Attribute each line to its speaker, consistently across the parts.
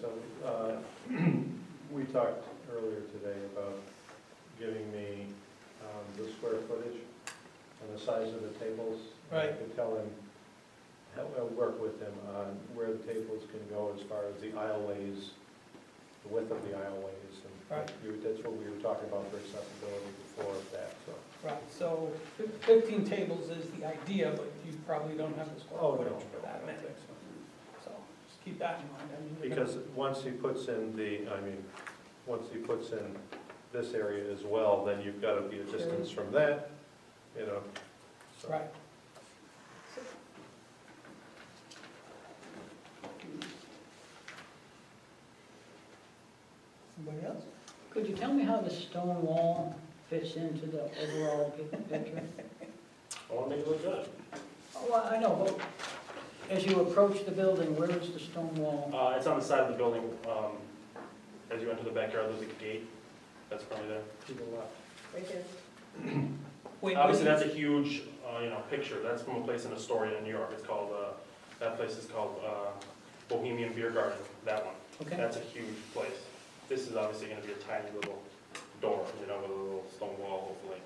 Speaker 1: so, uh, we talked earlier today about giving me um, the square footage and the size of the tables.
Speaker 2: Right.
Speaker 1: I can tell him, help- I'll work with him on where the tables can go as far as the aisleways, the width of the aisleways. and
Speaker 2: Right.
Speaker 1: you- That's what we were talking about for accessibility before of that, so.
Speaker 2: Right, so fif- fifteen tables is the idea, but you probably don't have the square
Speaker 1: Oh, no,
Speaker 2: footage for that
Speaker 1: I
Speaker 2: many.
Speaker 1: don't think so.
Speaker 2: So just keep that in mind. I mean, you're gonna-
Speaker 1: Because once he puts in the, I mean, once he puts in this area as well, then you've got to be a distance from that, you know? so.
Speaker 2: Right. Somebody else?
Speaker 3: Could you tell me how the stone wall fits into the overall pic- picture?
Speaker 4: All made look good.
Speaker 3: Oh, well, I know, but as you approach the building, where is the stone wall?
Speaker 4: Uh, it's on the side of the building, um, as you enter the backyard, there's a gate that's probably there.
Speaker 1: To the left.
Speaker 5: Right there.
Speaker 2: Wait,
Speaker 4: Obviously,
Speaker 2: wait,
Speaker 4: that's a huge, uh, you know, picture, that's from a place in Astoria, New York, it's called, uh, that place is called, uh, Bohemian Beer Garden, that one.
Speaker 3: Okay,
Speaker 4: That's a huge place. This is obviously gonna be a tiny little door, you know, with a little stone wall, hopefully.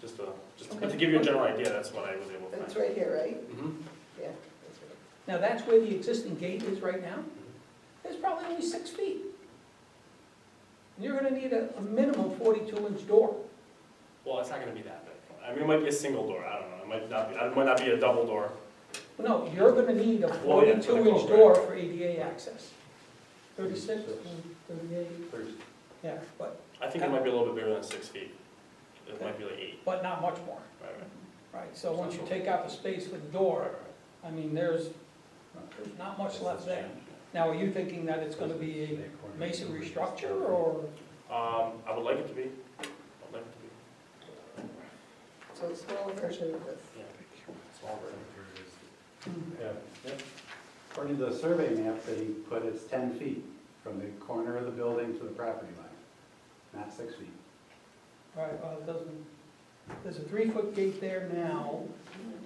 Speaker 4: Just to, just, but to
Speaker 3: Okay.
Speaker 4: give you a general idea, that's what I was able to
Speaker 5: That's
Speaker 4: find.
Speaker 5: right here, right?
Speaker 4: Mhm.
Speaker 5: Yeah. that's right.
Speaker 2: now that's where the existing gate is right now? It's probably only six feet. And You're gonna need a, a minimum forty-two inch door.
Speaker 4: Well, it's not gonna be that big. I mean, it might be a single door, I don't know, it might not be, it might not be a double door.
Speaker 2: No, you're gonna need a
Speaker 4: Oh, yeah, for the
Speaker 2: forty-two inch
Speaker 4: corporate.
Speaker 2: door for ADA access. Thirty-six, thirty-eight,
Speaker 1: There's-
Speaker 2: yeah, but,
Speaker 4: I think it might be a little bit bigger than six feet. It might be like eight,
Speaker 2: but not much more.
Speaker 4: right, right.
Speaker 2: Right, so once you take out the space for the door, I mean, there's, there's not much left there. Now, are you thinking that it's gonna be a masonry structure, or,
Speaker 4: Um, I would like it to be, I'd like it to be,
Speaker 5: So a smaller version of this.
Speaker 4: yeah, smaller.
Speaker 1: Yeah,
Speaker 6: According to the survey map that he put, it's 10 feet from the corner of the building to the property line, not six feet.
Speaker 2: right, well, it doesn't, there's a three-foot gate there now,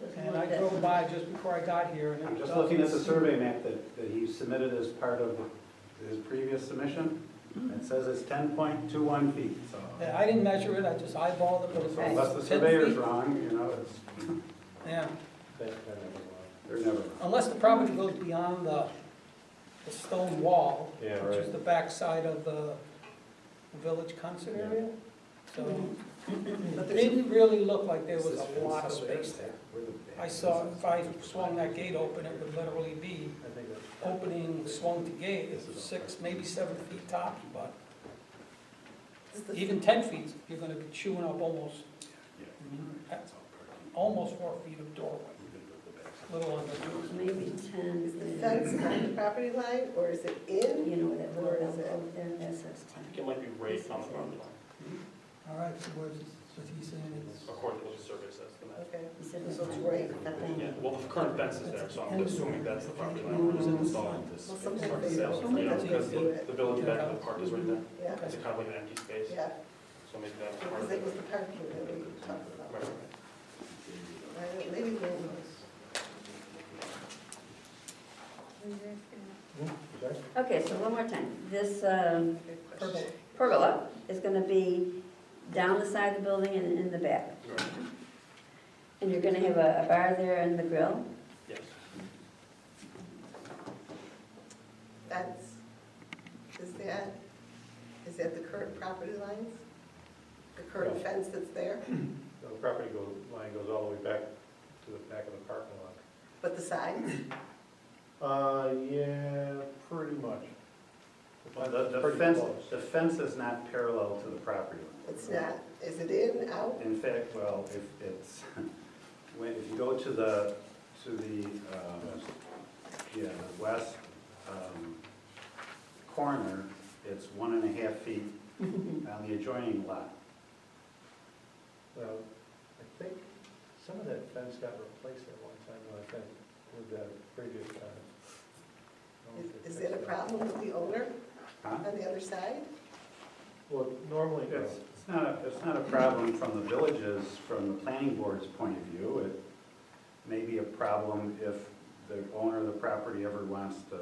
Speaker 5: Doesn't
Speaker 2: and I
Speaker 5: look that-
Speaker 2: drove by just before I got here, and it
Speaker 6: I'm just
Speaker 2: doesn't
Speaker 6: looking at the
Speaker 2: seem-
Speaker 6: survey map that, that he submitted as part of his previous submission. It says it's 10.21 feet, so.
Speaker 2: Yeah, I didn't measure it, I just eyeballed it, but it's
Speaker 6: So unless the
Speaker 2: it's 10
Speaker 6: surveyor's
Speaker 2: feet.
Speaker 6: wrong, you know, it's,
Speaker 2: Yeah,
Speaker 1: that kind of, uh,
Speaker 6: they're never wrong.
Speaker 2: unless the property goes beyond the, the stone wall,
Speaker 1: Yeah,
Speaker 2: which is
Speaker 1: right.
Speaker 2: the backside of the village concert
Speaker 1: Yeah.
Speaker 2: area, so.
Speaker 5: Mm-hmm. But
Speaker 2: It
Speaker 5: there's,
Speaker 2: didn't really look like there was
Speaker 6: This is
Speaker 2: a lot of
Speaker 6: fence
Speaker 2: space
Speaker 6: somewhere.
Speaker 2: there.
Speaker 6: Where the-
Speaker 2: I saw, if I swung that gate open, it would literally be
Speaker 1: I think that's.
Speaker 2: opening, swung to gate, it's six, maybe seven feet top, but
Speaker 5: is this-
Speaker 2: even ten feet, you're gonna be chewing up almost,
Speaker 6: Yeah. It's all parking,
Speaker 2: almost four feet of doorway,
Speaker 6: even with the back.
Speaker 2: little under.
Speaker 7: Maybe ten
Speaker 5: is the fence
Speaker 7: is,
Speaker 5: on the property line, or is it in?
Speaker 7: you know, that
Speaker 5: Where
Speaker 7: little
Speaker 5: is it?
Speaker 7: alcove there, that says
Speaker 4: I think
Speaker 7: ten.
Speaker 4: it might be right on the property line,
Speaker 2: All right, so what is, what he's saying
Speaker 4: according to what the survey says. the map.
Speaker 5: Okay.
Speaker 7: He said
Speaker 5: So it's
Speaker 7: it's
Speaker 5: right.
Speaker 7: But then-
Speaker 4: Yeah, well, the current fence is there, so I'm assuming that's the property line we're just installing.
Speaker 5: Well,
Speaker 4: Start
Speaker 5: sometimes
Speaker 4: the
Speaker 5: they
Speaker 4: sale,
Speaker 5: don't,
Speaker 4: you know,
Speaker 5: sometimes
Speaker 4: because
Speaker 5: they do
Speaker 4: the,
Speaker 5: it.
Speaker 4: the building back of the park is right there.
Speaker 5: Yeah,
Speaker 4: It's kind of like an empty space,
Speaker 5: yeah,
Speaker 4: so maybe that's part
Speaker 5: because
Speaker 4: of
Speaker 5: it
Speaker 4: it.
Speaker 5: was the parking that we talked about.
Speaker 4: Right, right, right.
Speaker 5: I don't- Maybe they don't.
Speaker 1: Hmm, sorry?
Speaker 7: Okay, so one more time, this um,
Speaker 5: Good
Speaker 2: is?
Speaker 5: question.
Speaker 7: pergola is gonna be down the side of the building and in the back.
Speaker 4: Right,
Speaker 7: And you're gonna have a a bar there and the grill,
Speaker 4: Yes.
Speaker 5: That's, is that, is that the current property lines? The current
Speaker 1: Yeah.
Speaker 5: fence that's there,
Speaker 1: The property go- line goes all the way back to the back of the parking lot.
Speaker 5: but the signs?
Speaker 1: Uh, yeah, pretty much.
Speaker 6: The, the
Speaker 1: Pretty
Speaker 6: fence,
Speaker 1: close.
Speaker 6: the fence is not parallel to the property line.
Speaker 5: It's not, is it in, out?
Speaker 6: In fact, well, if it's, when, if you go to the, to the, um, yeah, the west, um, corner, it's one and a half feet on the adjoining lot.
Speaker 1: Well, I think some of that fence got replaced at one time, I think, with that previous time. I don't know if they
Speaker 5: Is is that a
Speaker 1: fixed
Speaker 5: problem with the owner
Speaker 6: Huh?
Speaker 5: on the other side?
Speaker 1: Well, normally, no.
Speaker 6: It's, it's not, a- it's not a problem from the villages, from the planning board's point of view. It may be a problem if the owner of the property ever wants to